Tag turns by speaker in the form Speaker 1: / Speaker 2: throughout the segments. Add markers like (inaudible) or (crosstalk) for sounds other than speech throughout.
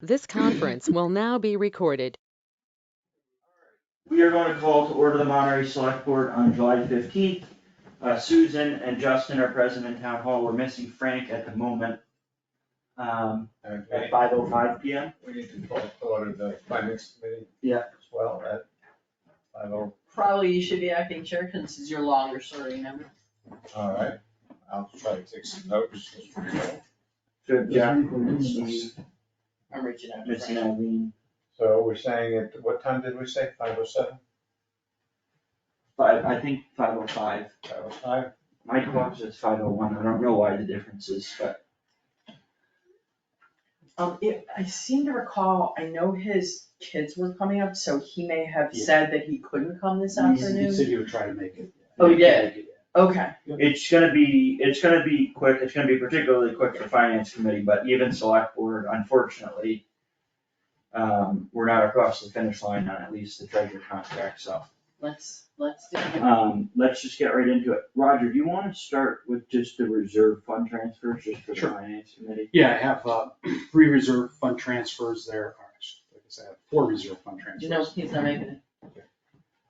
Speaker 1: This conference will now be recorded.
Speaker 2: We are going to call to order the Monterey Select Board on July fifteenth. Uh, Susan and Justin are present in town hall. We're missing Frank at the moment. um, At
Speaker 3: Okay,
Speaker 2: five oh five P M.
Speaker 3: we need to call to order the finance committee.
Speaker 2: Yeah.
Speaker 3: As well, at five oh,
Speaker 4: Probably you should be acting chair since it's your longer serving member.
Speaker 3: all right, I'll try to take some notes.
Speaker 2: Yeah.
Speaker 4: I'm reaching out to
Speaker 2: Missing
Speaker 4: Frank.
Speaker 2: Eileen,
Speaker 3: So we're saying at, what time did we say, five oh seven,
Speaker 2: five, I think five oh five.
Speaker 3: five oh five?
Speaker 2: My clock says five oh one. I don't know why the difference is, but
Speaker 4: Um, it, I seem to recall, I know his kids were coming up, so he may have
Speaker 5: Yeah.
Speaker 4: said that he couldn't come this
Speaker 5: He
Speaker 4: afternoon.
Speaker 5: said he would try to make it.
Speaker 4: Oh, he did? Okay,
Speaker 2: it's gonna be, it's gonna be quick. It's gonna be particularly quick for finance committee, but even select board, unfortunately, um, we're not across the finish line on at least the treasure contract, so.
Speaker 4: let's, let's do it.
Speaker 2: Um, let's just get right into it. Roger, do you wanna start with just the reserve fund transfers, just for the
Speaker 5: Sure.
Speaker 2: finance committee?
Speaker 5: Yeah, I have uh, (clears throat) three reserve fund transfers there, or actually, like I said, I have four reserve fund transfers.
Speaker 4: No, he's not making it.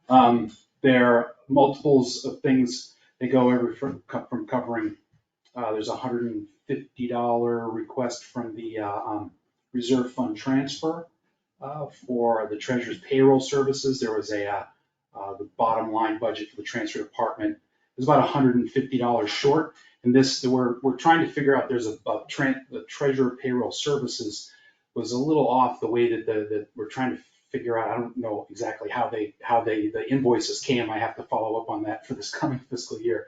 Speaker 5: Um, there are multiples of things, they go every, from, co- from covering, uh, there's a hundred and fifty dollar request from the, uh, um, reserve fund transfer, uh, for the treasurer's payroll services, there was a, uh, uh, the bottom line budget for the transfer department is about hundred and fifty dollars short, and this, we're, we're trying to figure out, there's a, a tran, the treasurer payroll services was a little off the way that the, that we're trying to figure out, I don't know exactly how they, how they, the invoices came, I have to follow up on that for this (laughs) coming fiscal year.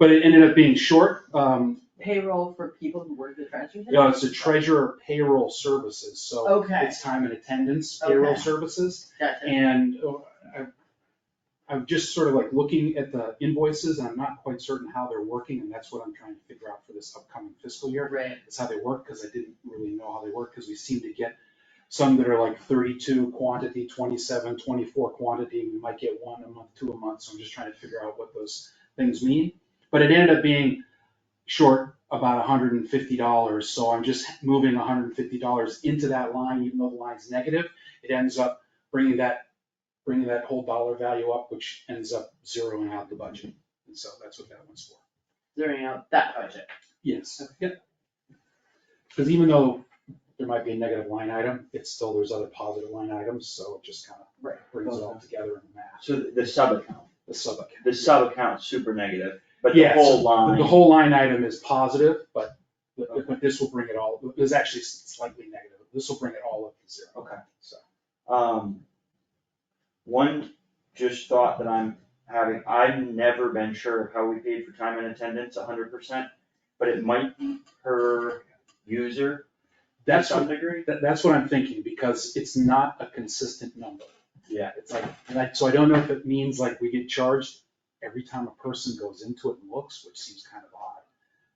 Speaker 5: But it ended up being short, um,
Speaker 4: Payroll for people who work at the transfer
Speaker 5: you
Speaker 4: station?
Speaker 5: know, it's a treasurer payroll services, so
Speaker 4: Okay,
Speaker 5: it's time and attendance payroll
Speaker 4: Okay.
Speaker 5: services.
Speaker 4: gotcha.
Speaker 5: And uh, I- I'm just sort of like looking at the invoices, and I'm not quite certain how they're working, and that's what I'm trying to figure out for this upcoming fiscal year.
Speaker 4: Right.
Speaker 5: It's how they work, because I didn't really know how they work, because we seem to get some that are like thirty-two quantity, 27, 24 quantity, we might get one a month, two a month, so I'm just trying to figure out what those things mean. But it ended up being short about hundred and fifty dollars, so I'm just moving hundred and fifty dollars into that line, even though the line's negative. It ends up bringing that, bringing that whole dollar value up, which ends up zeroing out the budget, and so that's what that one's for.
Speaker 4: Zeroing out that budget.
Speaker 5: Yes, yep. Because even though there might be a negative line item, it's still, there's other positive line items, so it just kind
Speaker 4: Right.
Speaker 5: of brings it all together in the math,
Speaker 2: So the- the sub account,
Speaker 5: the sub account.
Speaker 2: the sub account's super negative, but the
Speaker 5: Yeah, so
Speaker 2: whole
Speaker 5: The
Speaker 2: line,
Speaker 5: whole line item is positive, but, but this will bring it all, it's actually slightly negative, this will bring it all up to zero.
Speaker 2: Okay.
Speaker 5: So,
Speaker 2: um, one just thought that I'm having, I've never been sure of how we paid for time and attendance hundred percent, but it might be per user to
Speaker 5: that's what,
Speaker 2: some degree.
Speaker 5: that- that's what I'm thinking, because it's not a consistent number.
Speaker 2: Yeah.
Speaker 5: It's like, and I, so I don't know if it means like we get charged every time a person goes into it and looks, which seems kind of odd.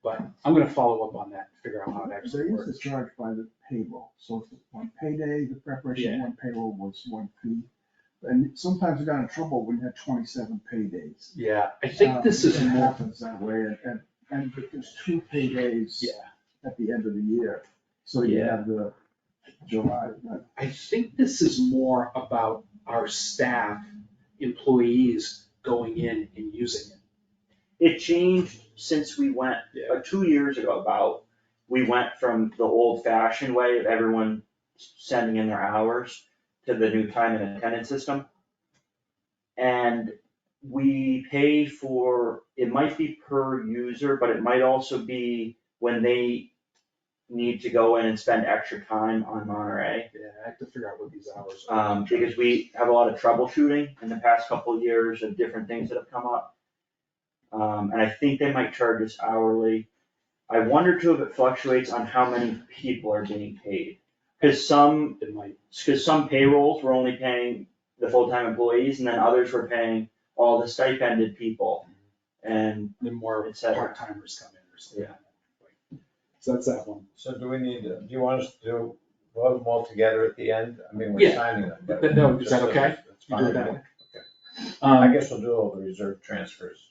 Speaker 5: But I'm gonna follow up on that, and figure out how it
Speaker 6: They
Speaker 5: actually
Speaker 6: used to
Speaker 5: works.
Speaker 6: charge by the payroll, so if on payday, the preparation of one payroll was one fee. And sometimes we got in trouble when we had twenty-seven paydays. Uh,
Speaker 5: Um, Yeah, I think this is
Speaker 6: It
Speaker 5: more,
Speaker 6: happens that way, and, and, and but there's two paydays
Speaker 5: yeah,
Speaker 6: at the end of the year, so you
Speaker 5: Yeah.
Speaker 6: have the July, uh,
Speaker 5: I think this is more about our staff, employees going in and using it.
Speaker 2: It changed since we went
Speaker 5: Yeah.
Speaker 2: like two years ago about, we went from the old fashioned way of everyone sending in their hours to the new time and attendance system. And we pay for, it might be per user, but it might also be when they need to go in and spend extra time on Monterey.
Speaker 5: Yeah, I have to figure out what these hours are.
Speaker 2: Um, because we have a lot of troubleshooting in the past couple of years of different things that have come up. Um, and I think they might charge us hourly. I wonder too if it fluctuates on how many people are being paid. Cause some,
Speaker 5: It might,
Speaker 2: cause some payrolls were only paying the full-time employees and then others were paying all the stipended people. And
Speaker 5: then more
Speaker 2: Et cetera.
Speaker 5: part-timers come in or something. like that. So that's that one.
Speaker 3: So do we need, to- do you want us to do, vote them all together at the end? I mean, we're
Speaker 5: Yeah.
Speaker 3: signing them. but
Speaker 5: Th- no, is
Speaker 3: just
Speaker 5: that
Speaker 3: so
Speaker 5: okay?
Speaker 3: it's
Speaker 5: You do it
Speaker 3: fine.
Speaker 5: that way?
Speaker 3: I
Speaker 5: Um,
Speaker 3: guess we'll do all the reserve transfers.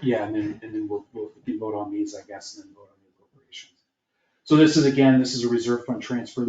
Speaker 5: Yeah, and then, and then we'll, we'll we can vote on these, I guess, and then vote on the appropriations. So this is, again, this is a reserve fund transfer.